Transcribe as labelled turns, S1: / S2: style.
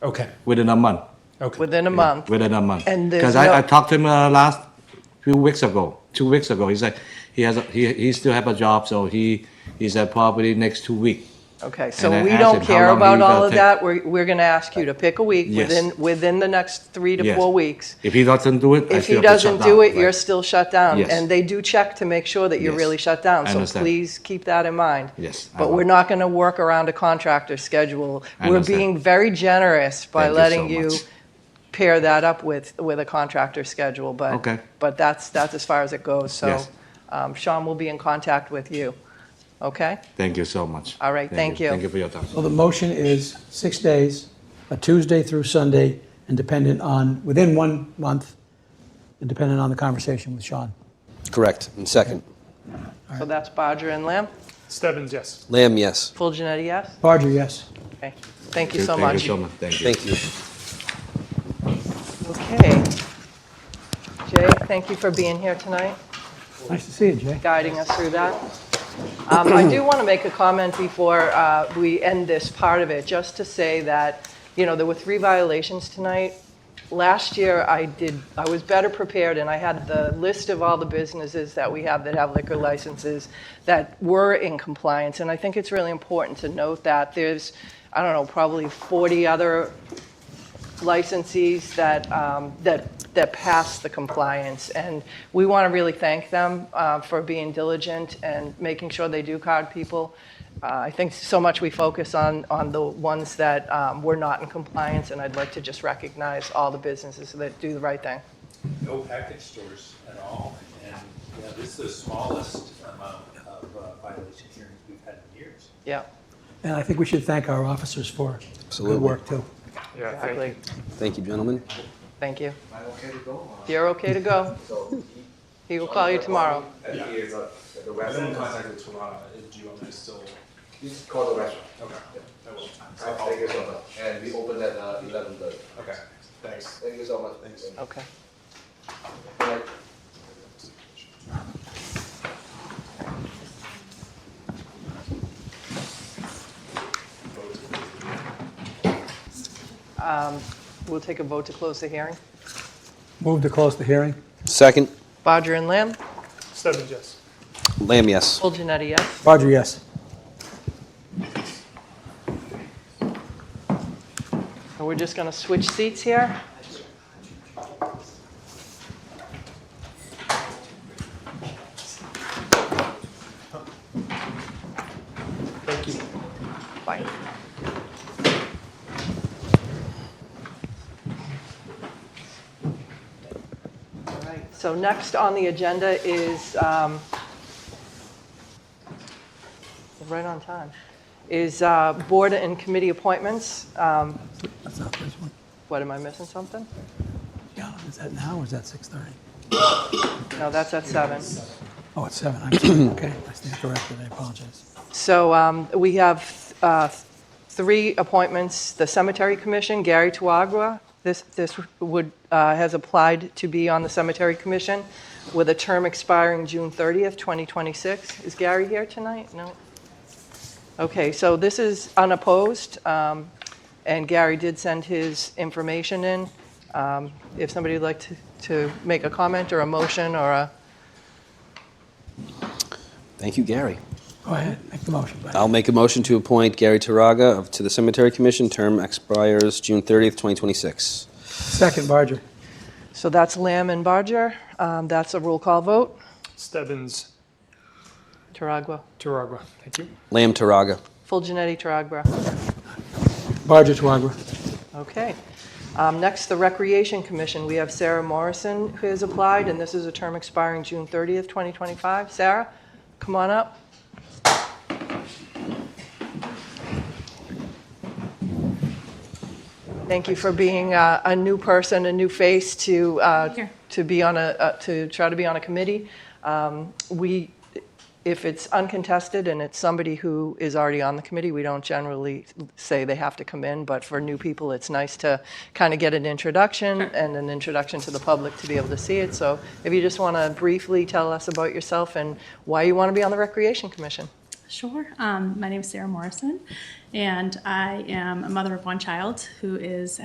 S1: Okay,
S2: within a month.
S1: okay.
S3: within a month.
S2: Within a month.
S3: And there's
S2: because
S3: no-
S2: I, I talked to him uh, last few weeks ago, two weeks ago. He said he has a, he he still have a job, so he he's at property next two week.
S3: Okay, so
S2: And I
S3: we
S2: asked
S3: don't
S2: him how
S3: care
S2: long
S3: about
S2: he's
S3: all
S2: gonna
S3: of
S2: take.
S3: that. We're, we're going to ask you to pick a week
S2: Yes.
S3: within, within the next three to
S2: Yes.
S3: four weeks.
S2: If he doesn't do it, I
S3: If
S2: still have
S3: he
S2: to shut
S3: doesn't do
S2: down,
S3: it, you're
S2: right.
S3: still shut down.
S2: Yes.
S3: And they do check to make sure that you're
S2: Yes.
S3: really shut down.
S2: I
S3: So
S2: understand.
S3: please keep that in mind.
S2: Yes, I
S3: But
S2: will.
S3: we're not going to work around a contractor's schedule.
S2: I
S3: We're
S2: understand.
S3: being very generous
S2: Thank
S3: by
S2: you so
S3: letting you
S2: much.
S3: pair that up with, with a contractor's schedule. But,
S2: Okay.
S3: but that's, that's as far as it goes. So
S2: Yes.
S3: um, Sean will be in contact with you. Okay?
S2: Thank you so much.
S3: All right, thank you.
S2: Thank you for your time.
S4: So the motion is six days, a Tuesday through Sunday, and dependent on, within one month, and dependent on the conversation with Sean.
S5: Correct. And second.
S3: So that's Bodger and Lamb.
S1: Stebbins, yes.
S5: Lamb, yes.
S3: Full Genetti, yes?
S4: Barger, yes.
S3: Okay. Thank you so
S2: Thank you
S3: much.
S2: so much. Thank you.
S5: Thank you.
S3: Okay. Jay, thank you for being here tonight,
S4: Nice to see you, Jay.
S3: guiding us through that. Um, I do want to make a comment before uh, we end this part of it, just to say that, you know, there were three violations tonight. Last year, I did, I was better prepared, and I had the list of all the businesses that we have that have liquor licenses that were in compliance, and I think it's really important to note that. There's, I don't know, probably 40 other licensees that, um, that, that pass the compliance. And we want to really thank them uh, for being diligent and making sure they do card people. Uh, I think so much we focus on, on the ones that um, were not in compliance, and I'd like to just recognize all the businesses that do the right thing.
S6: no package stores at all. And yeah, this is the smallest amount of uh, violation hearings we've had in years.
S3: Yeah,
S4: And I think we should thank our officers for
S5: Absolutely.
S4: good work, too.
S1: Yeah, thank you.
S3: exactly.
S5: Thank you, gentlemen.
S3: Thank you. Am I okay to go? You're okay to go. He will call you tomorrow.
S7: Yeah. He is at the
S1: I've been in
S7: restaurant.
S1: contact with Tarana. Do you want me to still?
S7: You just call the restaurant.
S1: Okay. I will.
S7: I'll take you so much. And we open at uh, eleven thirty.
S1: Okay, thanks.
S7: Thank you so much. Thanks.
S3: Okay. Um, We'll take a vote to close the hearing.
S4: Move to close the hearing.
S5: Second.
S3: Bodger and Lamb?
S1: Stebbins, yes.
S5: Lamb, yes.
S3: Full Janetti, yes?
S4: Barger, yes.
S3: And we're just going to switch seats here.
S1: Thank you.
S3: Bye. All right. So next on the agenda is, um, right on time, is uh, board and committee appointments. Um,
S4: That's not this one.
S3: What, am I missing something?
S4: Yeah, is that now or is that 6:30?
S3: No, that's at seven.
S4: Oh, it's 7. I'm sorry. Okay, I stand corrected. I apologize.
S3: So um, we have uh, three appointments, the Cemetery Commission, Gary Tuagua, this, this would, uh, has applied to be on the Cemetery Commission with a term expiring June 30th, 2026. Is Gary here tonight? No? Okay, so this is unopposed, um, and Gary did send his information in. Um, If somebody would like to- to make a comment or a motion or a,
S5: Thank you, Gary.
S4: Go ahead, make the motion, buddy.
S5: I'll make a motion to appoint Gary Taraga of- to the Cemetery Commission. Term expires June 30th, 2026.
S4: Second, Barger.
S3: so that's Lamb and Barger. Um, That's a roll call vote.
S1: Stebbins,
S3: Taragua.
S1: Taragua, thank you.
S5: Lamb, Taraga.
S3: Full Janetti Taragua.
S4: Barger, Twagra.
S3: Okay. Um, Next, the Recreation Commission. We have Sarah Morrison who has applied, and this is a term expiring June 30th, 2025. Sarah, come on up. Thank you for being uh, a new person, a new face to, uh, to be on a, uh, to try to be on a committee. Um, We, if it's uncontested and it's somebody who is already on the committee, we don't generally say they have to come in, but for new people, it's nice to kind of get an introduction and an introduction to the public to be able to see it. So if you just want to briefly tell us about yourself and why you want to be on the Recreation Commission.
S8: Sure. Um, my name is Sarah Morrison, and I am a mother of one child who is